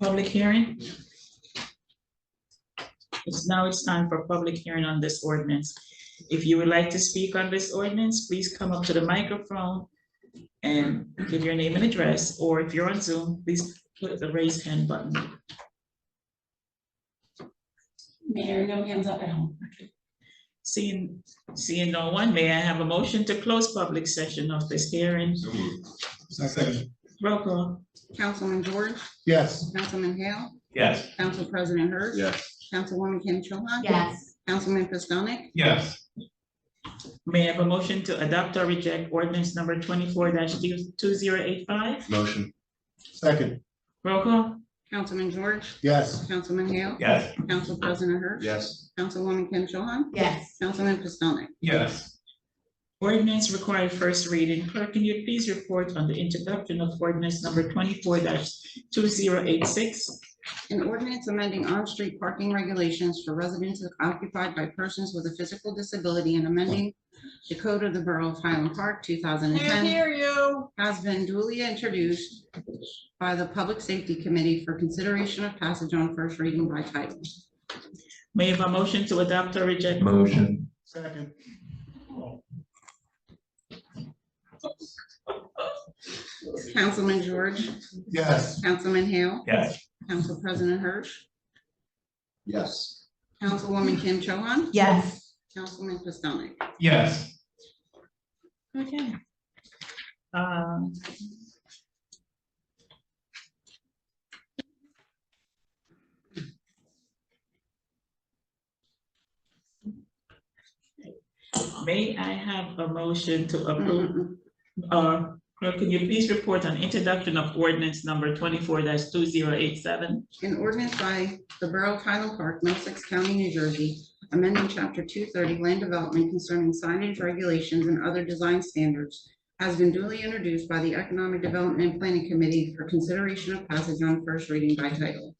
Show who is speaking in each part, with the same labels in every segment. Speaker 1: Public hearing? It's now it's time for public hearing on this ordinance. If you would like to speak on this ordinance, please come up to the microphone and give your name and address, or if you're on Zoom, please click the raise hand button.
Speaker 2: Mayor, no hands up at home.
Speaker 1: Seeing, seeing no one, may I have a motion to close public session of this hearing?
Speaker 3: So moved.
Speaker 4: Second.
Speaker 1: Roll call.
Speaker 2: Councilman George,
Speaker 4: Yes.
Speaker 2: Councilman Hale,
Speaker 3: Yes.
Speaker 2: Council President Hurst.
Speaker 3: Yes.
Speaker 2: Councilwoman Kim Cho Han.
Speaker 5: yes,
Speaker 2: Councilman Pistonik.
Speaker 3: Yes.
Speaker 1: May I have a motion to adopt or reject ordinance number twenty-four two zero eight five?
Speaker 3: Motion.
Speaker 4: Second.
Speaker 1: Roll call.
Speaker 2: Councilman George,
Speaker 4: Yes.
Speaker 2: Councilman Hale,
Speaker 3: Yes.
Speaker 2: Council President Hurst.
Speaker 3: Yes.
Speaker 2: Councilwoman Kim Cho Han,
Speaker 5: yes.
Speaker 2: Councilman Pistonik.
Speaker 3: Yes.
Speaker 1: Ordinance required first reading. Clerk, can you please report on the introduction of ordinance number twenty-four two zero eight six?
Speaker 2: An ordinance amending on-street parking regulations for residents occupied by persons with a physical disability and amending the code of the Borough of Highland Park, two thousand and ten.
Speaker 5: you.
Speaker 2: has been duly introduced by the Public Safety Committee for consideration of passage on first reading by title.
Speaker 1: May I have a motion to adopt or reject?
Speaker 3: Motion.
Speaker 4: Second.
Speaker 2: Councilman George,
Speaker 4: Yes.
Speaker 2: Councilman Hale,
Speaker 3: Yes.
Speaker 2: Council President Hirsch,
Speaker 3: Yes.
Speaker 2: Councilwoman Kim Cho Han,
Speaker 5: Yes.
Speaker 2: Councilman Pistonik.
Speaker 3: Yes.
Speaker 1: Okay. Um, May I have a motion to approve
Speaker 2: Mm-mm-mm.
Speaker 1: Uh, clerk, can you please report on introduction of ordinance number twenty-four two zero eight seven?
Speaker 2: An ordinance by the Borough of Highland Park, Middlesex County, New Jersey, amending chapter two thirty land development concerning signage regulations and other design standards has been duly introduced by the Economic Development and Planning Committee for consideration of passage on first reading by title.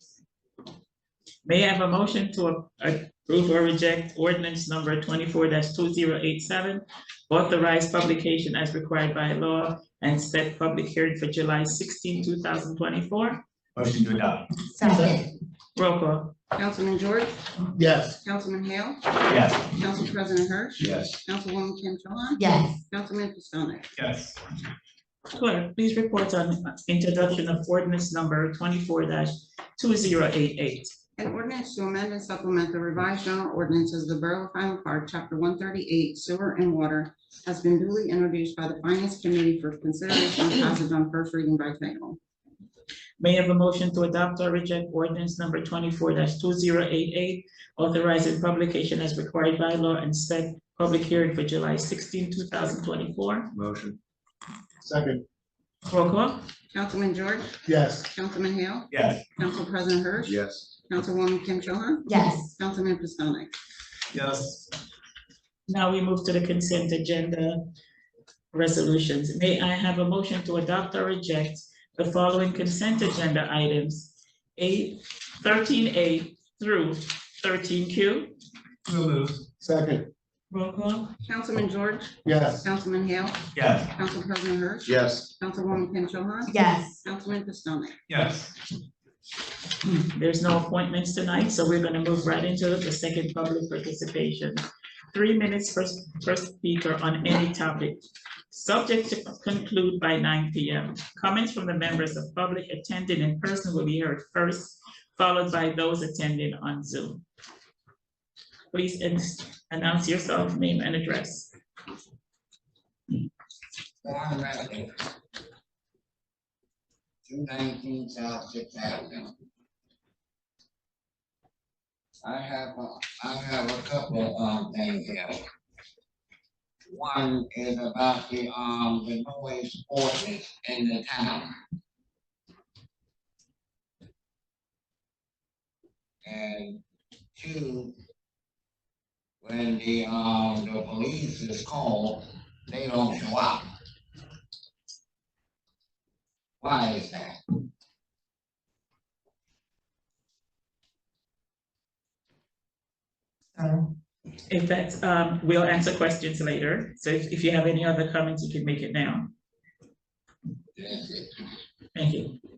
Speaker 1: May I have a motion to a- approve or reject ordinance number twenty-four two zero eight seven? Authorize publication as required by law and set public hearing for July 16, 2024.
Speaker 3: Motion to adopt.
Speaker 5: Second,
Speaker 1: Roll call.
Speaker 2: Councilman George,
Speaker 4: Yes.
Speaker 2: Councilman Hale,
Speaker 3: Yes.
Speaker 2: Council President Hirsch,
Speaker 3: Yes.
Speaker 2: Councilwoman Kim Cho Han,
Speaker 5: yes.
Speaker 2: Councilman Pistonik.
Speaker 3: Yes.
Speaker 1: Clerk, please report on introduction of ordinance number twenty-four two zero eight eight.
Speaker 2: An ordinance to amend and supplement the revised general ordinances of the Borough of Highland Park, Chapter one thirty-eight, sewer and water, has been duly introduced by the Finance Committee for consideration and passage on first reading by title.
Speaker 1: May I have a motion to adopt or reject ordinance number twenty-four two zero eight eight, authorizing publication as required by law and set public hearing for July 16, 2024.
Speaker 3: Motion.
Speaker 4: Second.
Speaker 1: Roll call.
Speaker 2: Councilman George,
Speaker 4: Yes.
Speaker 2: Councilman Hale,
Speaker 3: Yes.
Speaker 2: Council President Hirsch,
Speaker 3: Yes.
Speaker 2: Councilwoman Kim Cho Han,
Speaker 5: Yes.
Speaker 2: Councilman Pistonik.
Speaker 3: Yes.
Speaker 1: Now we move to the consent agenda resolutions. May I have a motion to adopt or reject the following consent agenda items? A, thirteen A through thirteen Q.
Speaker 3: So moved.
Speaker 4: Second.
Speaker 1: Roll call.
Speaker 2: Councilman George,
Speaker 4: Yes.
Speaker 2: Councilman Hale,
Speaker 3: Yes.
Speaker 2: Council President Hirsch,
Speaker 3: Yes.
Speaker 2: Councilwoman Kim Cho Han,
Speaker 5: Yes.
Speaker 2: Councilman Pistonik.
Speaker 3: Yes.
Speaker 1: There's no appointments tonight, so we're gonna move right into the second public participation. Three minutes per, per speaker on any topic. Subject to conclude by nine P M. Comments from the members of public attending in person will be heard first, followed by those attending on Zoom. Please an- announce yourself, name and address.
Speaker 6: Warren Redick. Two nineteen South Sixth Avenue. I have, a- I have a couple of things here. One is about the, um, the noise ordinance in the town. And two, when the, um, the police is called, they don't show up. Why is that?
Speaker 1: If that's, um, we'll answer questions later, so if, if you have any other comments, you can make it now.
Speaker 6: That's it.
Speaker 1: Thank you.